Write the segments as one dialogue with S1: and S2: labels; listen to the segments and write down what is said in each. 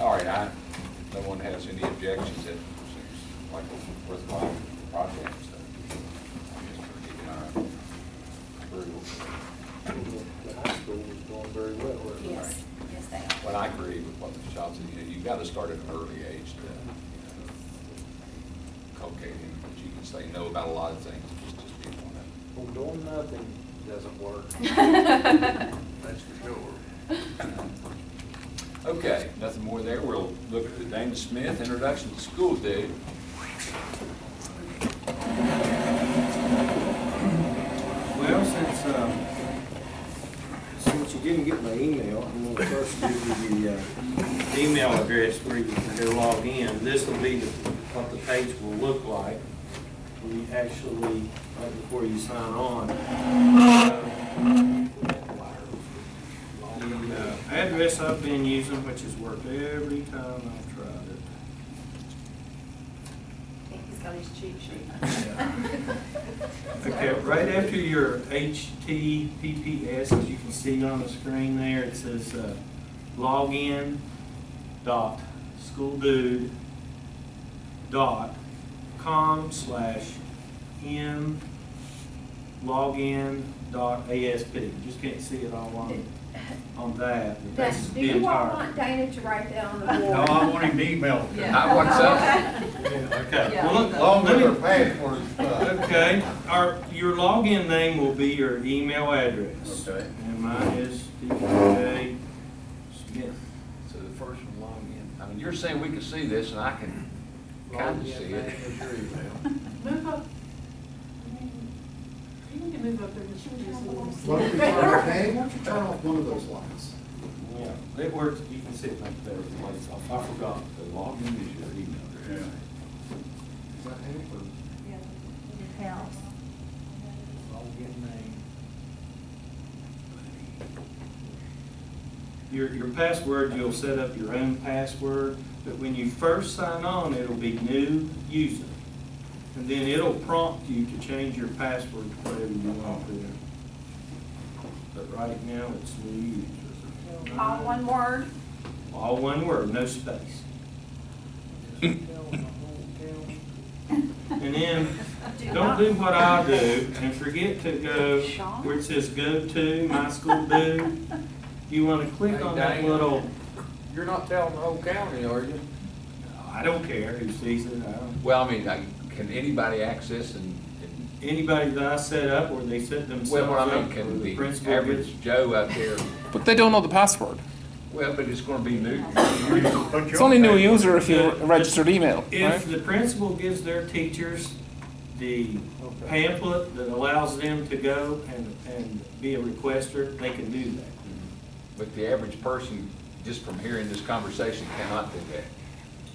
S1: All right, I, no one has any objections that seems like a worthwhile project, so I guess we're getting our approval.
S2: The high school was going very well. wasn't it?
S3: Yes, yes, they are.
S1: Well, I agree with what the child said, you know, you've got to start at an early age to, you know, cultivate him, but you can say no about a lot of things, just, just be one of
S2: Well, doing nothing doesn't work. That's for sure.
S1: them. Okay, nothing more there, we'll look at Dana Smith, introduction to school dude.
S4: Well, since, um, since you didn't get my email, I'm gonna first give you the, uh, email address where you can go log in. This will be the- what the page will look like when you actually, right before you sign on. The uh, address I've been using, which has worked every time I've tried it,
S3: I think he's got his cheat sheet.
S4: Okay, right after your HTTPS, as you can see on the screen there, it says uh, login dot schooldude dot com slash m login dot ASP. You Just can't see it all on, on that, but
S3: Now,
S4: that's
S3: Do
S4: the
S3: you all
S4: entire.
S3: want Dana to write that on the board?
S5: No, I want him to email. it.
S1: Yeah. I want some.
S4: Okay.
S5: Yeah.
S4: well, let-
S6: Long
S4: let
S6: with
S4: me-
S6: her passport and stuff.
S4: Okay, our, your login name will be your email address.
S6: Okay.
S4: And mine is DJ Smith.
S1: So the first one, log in. I mean, you're saying we can see this, and I can kind of see it.
S5: Move up. You need to move up there, but you just a little.
S6: Why don't you turn off- Danny, why don't you turn off one of those lights?
S4: Yeah, it works, you can see it like there, it's lights off. I forgot.
S1: The login is your email address.
S6: Is that Hanford?
S4: Login name. Your, your password, you'll set up your own password, but when you first sign on, it'll be new user. And then it'll prompt you to change your password to whatever you want there. But right now, it's new user.
S3: All one word?
S4: All one word, no space. And then, don't do what I do and forget to go where it says go to, my school do. You wanna click on that little,
S1: You're not telling the whole county, are you?
S4: I don't care who sees it, I don't.
S1: Well, I mean, I- can anybody access and, and-
S4: Anybody that I set up or they set themselves
S1: well, what I mean,
S4: up or
S1: can
S4: the
S1: the
S4: principal gets.
S1: average Joe out there,
S7: But they don't know the password.
S1: well, but it's gonna be new.
S7: It's only new user if you registered email, right?
S4: If the principal gives their teachers the pamphlet that allows them to go and, and be a requester, they can do that.
S1: But the average person, just from hearing this conversation, cannot do that.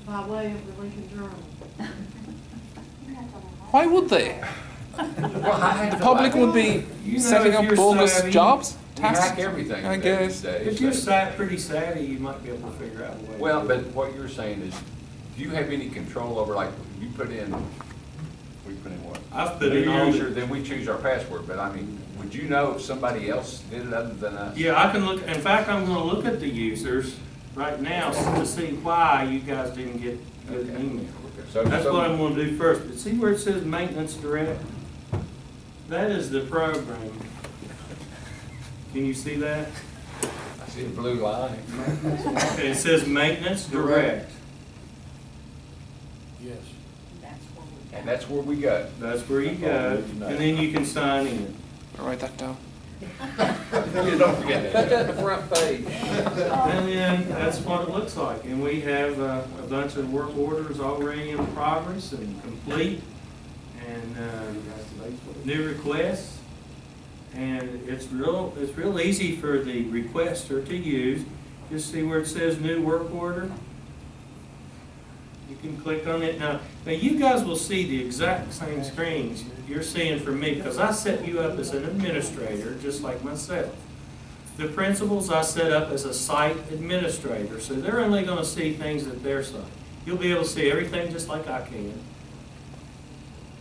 S5: By way of the Lincoln Journal.
S7: Why would they? The public would be
S4: You know,
S7: setting
S4: if
S7: up
S4: you're
S7: bogus
S4: savvy,
S7: jobs,
S1: We hack
S7: tasks.
S1: everything
S7: I
S1: these
S7: guess.
S1: days.
S4: If you're sat, pretty savvy, you might be able to figure out a way. to
S1: Well,
S4: do
S1: but
S4: it.
S1: what you're saying is, do you have any control over, like, you put in, we put in what?
S4: I've put in all
S1: New
S4: the-
S1: user, Then we choose our password, but I mean, would you know if somebody else did it other than us?
S4: Yeah, I can look, in fact, I'm gonna look at the users right now to see why you guys didn't get good
S1: Okay.
S4: email.
S1: So-
S4: That's
S1: so-
S4: what I'm gonna do first, but see where it says maintenance direct? That is the program. Can you see that?
S1: I see a blue line.
S4: Okay, It says maintenance direct.
S6: Yes.
S1: And that's where we go.
S4: That's where you
S1: Oh,
S4: go, and then you can sign in.
S7: I'll Write that down.
S1: You don't forget that. the front page.
S3: Oh.
S4: And then that's what it looks like, and we have uh, a bunch of work orders already in progress and complete, and uh, new requests. And it's real, it's real easy for the requester to use, just see where it says new work order. You can click on it now. Now, you guys will see the exact same screens you're seeing from me, because I set you up as an administrator, just like myself. The principals I set up as a site administrator, so they're only gonna see things at their site. You'll be able to see everything just like I can.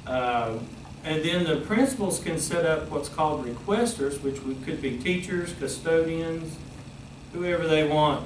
S4: Um, And then the principals can set up what's called requesters, which would- could be teachers, custodians, whoever they want